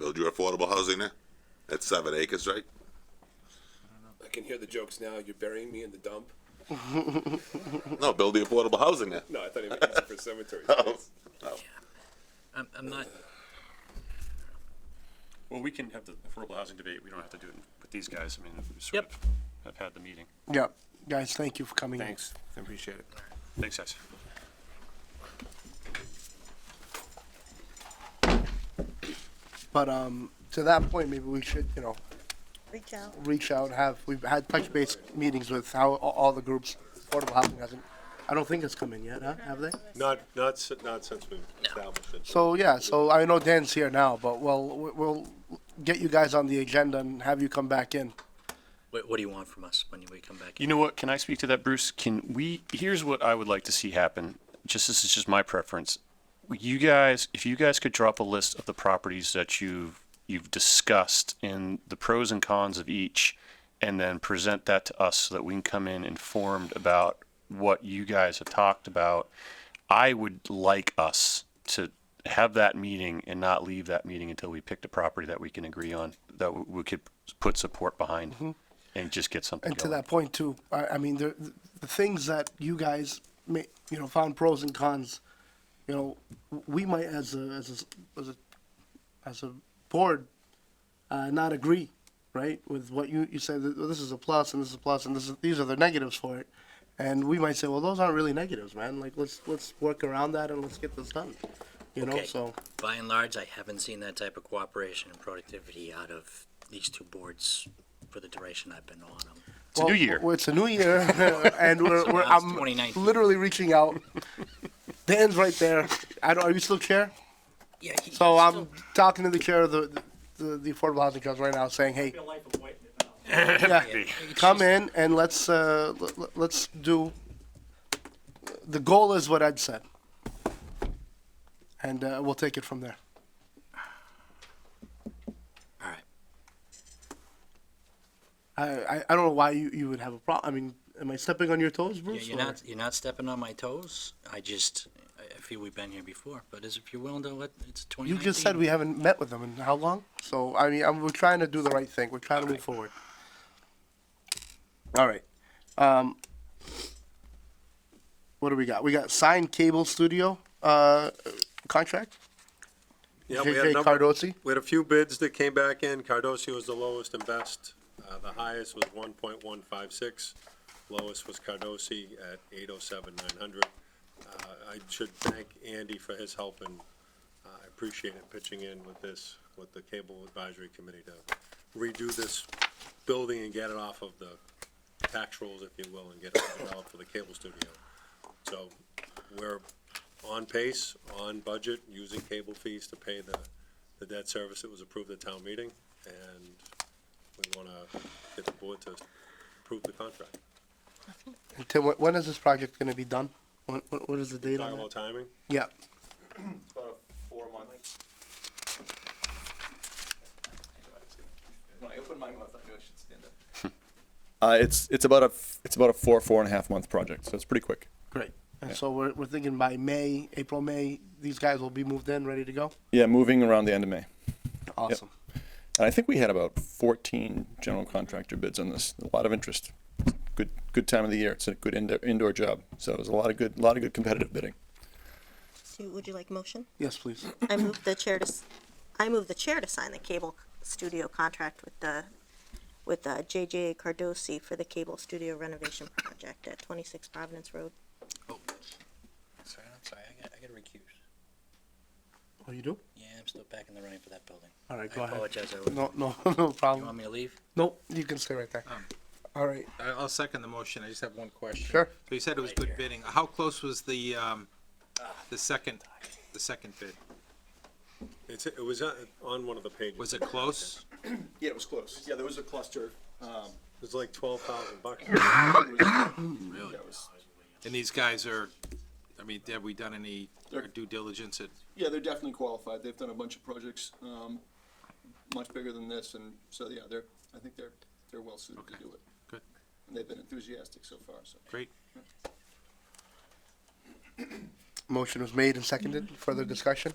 your affordable housing there? That's seven acres, right? I can hear the jokes now. You're burying me in the dump. No, build the affordable housing there. No, I thought he was using it for cemetery. Oh, space. I'm, I'm not, Well, we can have the affordable housing debate, we don't have to do it with these guys, I mean, we sort Yep. of have had the meeting. Yep. Guys, thank you for coming in. Thanks, I appreciate it. Thanks, guys. But um, to that point, maybe we should, you know, Reach out. reach out, have, we've had touch base meetings with how, all, all the groups, affordable housing hasn't, I don't think it's come in yet, huh? Have they? Not, not, si- not since we've established it. So, yeah, so I know Dan's here now, but we'll, we'll get you guys on the agenda and have you come back in. what, what do you want from us when we come back? You know what, can I speak to that, Bruce? Can we, here's what I would like to see happen, just, this is just my preference. You guys, if you guys could drop a list of the properties that you've, you've discussed and the pros and cons of each, and then present that to us so that we can come in informed about what you guys have talked about. I would like us to have that meeting and not leave that meeting until we picked a property that we can agree on, that w- we could put support behind. And just get something Mm-hmm. And to going. that point too, I, I mean, the, the things that you guys ma- you know, found pros and cons, you know, we might as a, as a, as a, as a board, uh, not agree, right? With what you, you said, that, well, this is a plus and this is a plus and this is, these are the negatives for it. And we might say, well, those aren't really negatives, man. Like, let's, let's work around that and let's get this done, you know, Okay. so. By and large, I haven't seen that type of cooperation and productivity out of these two boards for the duration I've been on them. It's a new year. Well, it's a new year, and we're, we're now it's I'm 2019. literally reaching out. Dan's right there. I don't. Are you still chair? Yeah, he- So um, he's I'm still- talking to the chair of the the, the affordable housing trust right now, saying, "Hey, yeah, come in and let's uh, l- l- let's do." The goal is what I'd said, and uh, we'll take it from there. All right. I, I, I don't know why you, you would have a problem. I mean, am I stepping on your toes, Yeah, Bruce? You're or- not, you're not stepping on my toes. I just, I- I feel we've been here before, but as if you're willing to let, it's twenty You nineteen. just said we haven't met with them in how long? So, I mean, I'm, we're trying to do the right thing. We're trying to move forward. All right. Um, what do we got? We got signed cable studio uh, contract. Yeah, we had a JJ number, Cardosi. we had a few bids that came back in. Cardosi was the lowest and best. Uh, the highest was one point one five six. Lowest was Cardosi at eight oh seven nine hundred. Uh, I should thank Andy for his help and uh, I appreciate it pitching in with this, with the cable advisory committee to redo this building and get it off of the tax rolls, if you will, and get it developed for the cable studio. So we're on pace, on budget, using cable fees to pay the, the debt service that was approved at town meeting, and we wanna get the board to approve the contract. Until wh- when is this project going to be done? When, what, what is the date Talk on about it? timing, Yeah. about a four month. When I opened my mouth, I knew I should stand up. Uh, it's, it's about a, f- it's about a four, four and a half month project, so it's pretty quick. Great. And so we're, we're thinking by May, April, May, these guys will be moved in, ready to go. Yeah, moving around the end of May. Awesome. And I think we had about fourteen general contractor bids on this, a lot of interest. Good, good time of the year, it's a good indoor, indoor job, so it was a lot of good, a lot of good competitive bidding. So would you like motion? Yes, please. I move the chair to, s- I move the chair to sign the cable studio contract with the, with uh, JJ Cardosi for the cable studio renovation project at twenty-six Providence Road. Oh, Sorry, I'm sorry, I got, I got recused. Oh, you do? Yeah, I'm still back in the running for that building. All right, I go ahead. apologize, I was- No, no, no You want problem. me to leave? Nope, you can stay right there. All right. I- I'll second the motion. I just have one question. Sure. So you said it was good bidding. How close was the, um, the second, the second bid? it's, it was uh, on one of the pages, Was it it close? Yeah, it was close. Yeah, there was a cluster. Um, was like twelve thousand bucks. yeah, it was And these guys are, I mean, have we done any due diligence at Yeah, they're definitely qualified. They've done a bunch of projects, um, much bigger than this, and so, yeah, they're, I think they're, they're well suited to do it. Good. And they've been enthusiastic so far, so. Great. Motion was made and seconded. Further discussion?